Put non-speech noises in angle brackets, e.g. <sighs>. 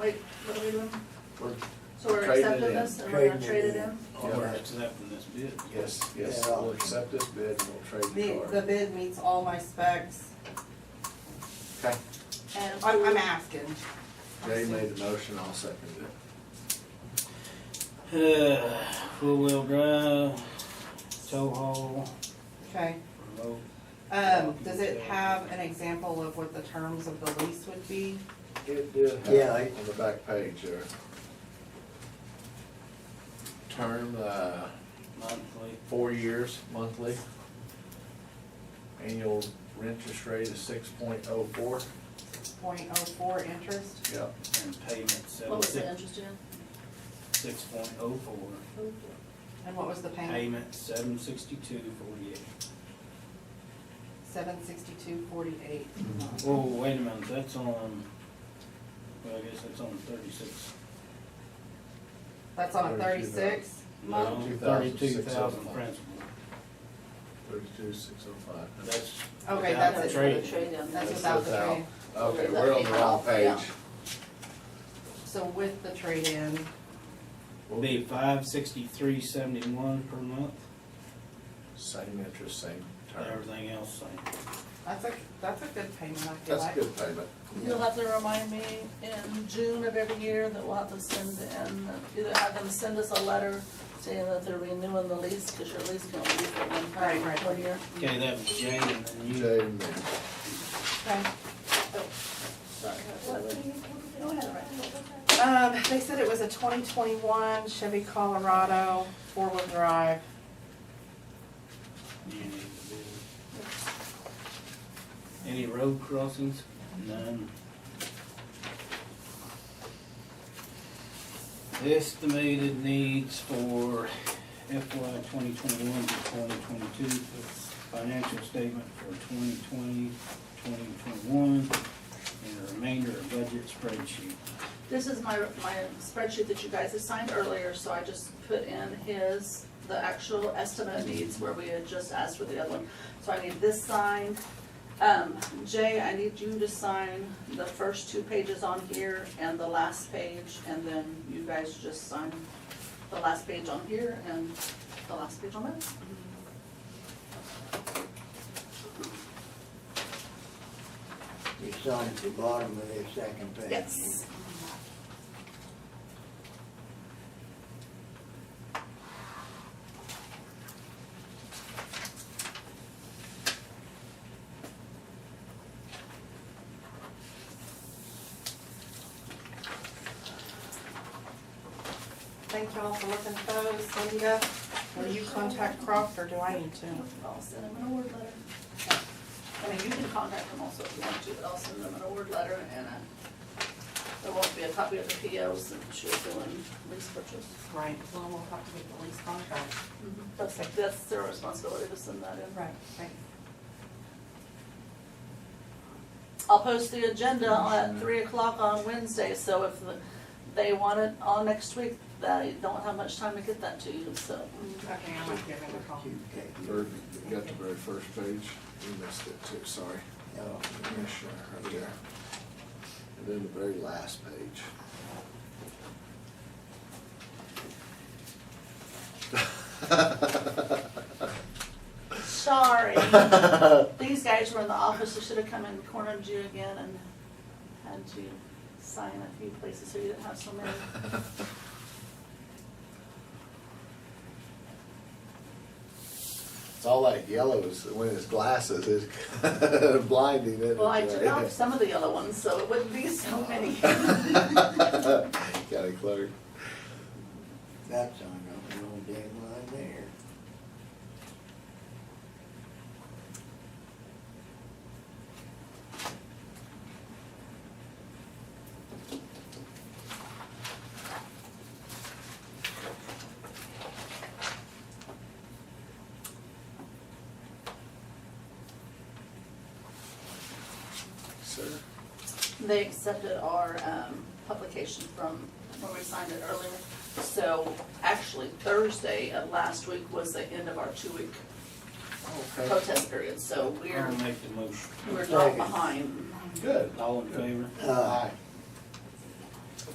wait, what are we doing? We're- So we're Trading it accepting in. this and we're gonna trade Trading it it in? All Yeah. right, so that from this bid. Yes, yes, Yeah. we'll accept this bid and we'll trade The, the the car. bid meets all my specs. Okay, And I'm, who- I'm asking. Jay made the motion, I'll second it. Uh, <sighs> four-wheel drive, tow haul, Okay. remote. Um, does it have an example of what the terms of the lease would be? It did Yeah, have I- on the back page there. Term, uh, monthly. four years monthly. Annual interest rate is six point oh four. Point oh four interest? Yep. and payment What seven was it six, interested in? six point oh four, And what was the payment? payment seven sixty-two forty-eight. Seven sixty-two forty-eight. Oh, wait a minute, that's on, well, I guess that's on thirty-six. That's on a Thirty-two thirty-six month? Thirty-two thousand 32,605. principal, Thirty-two, six oh five. that's. Okay, without that's the it. trade. That's without the without. trade. Okay, we're on the wrong Yeah. page. So with the trade-in, Will be five sixty-three seventy-one per month, Same interest, same term. everything else same. that's a, that's a good payment, I feel That's a like. good payment. You'll have to remind me in June of every year that we'll have to send in, either have them send us a letter saying that they're renewing the lease, cause your lease can only be for one Right, right. time, one year. Okay, that was Jane and then you. Jay made it. Okay. Sorry. Go ahead, right. Um, they said it was a twenty twenty-one Chevy Colorado four-wheel drive. You need to do. Any road crossings? None. Estimated needs for FY twenty twenty-one to twenty twenty-two, financial statement for 2020, 2021, and the remainder of budget spreadsheet. This is my, my spreadsheet that you guys assigned earlier, so I just put in his, the actual estimate of needs where we had just asked for the other one. So I need this signed. Um, Jay, I need you to sign the first two pages on here and the last page, and then you guys just sign the last page on here and the last page on that. You sign at the bottom of the second page. Yes. Thank y'all for looking at those. Linda, will you contact Croft or do I need to? I'll send them an award letter. I mean, you can contact them also if you want to, but I'll send them an award letter and a, there won't be a copy of the PO since she'll fill in lease purchase. Right, well, we'll have to get the lease contract. That's, that's their responsibility to send that in. Right, thanks. I'll post the agenda at three o'clock on Wednesday, so if the- they want it on next week, they don't have much time to get that to you, so. Okay, I might give him a call. You take it. Bird, you got the very first page, you missed it too, sorry. No. Commissioner, right there. And then the very last page. Sorry. These guys were in the office, they should have come and cornered you again and had you sign a few places so you didn't have so many. <laughs> <laughs> It's all that yellow is, when it's glasses, it's <laughs> blinding, isn't it? uh, Well, I took off some of the yellow ones, so it wouldn't be <laughs> so many. County clerk. That's on the little dead line there. Sir? They accepted our um, publication from when we signed it earlier. So actually Thursday of last week was the end of our two-week Okay, protest period, so we're, Um, I'll make the motion. we're not behind. good. All in favor? Uh, Aye.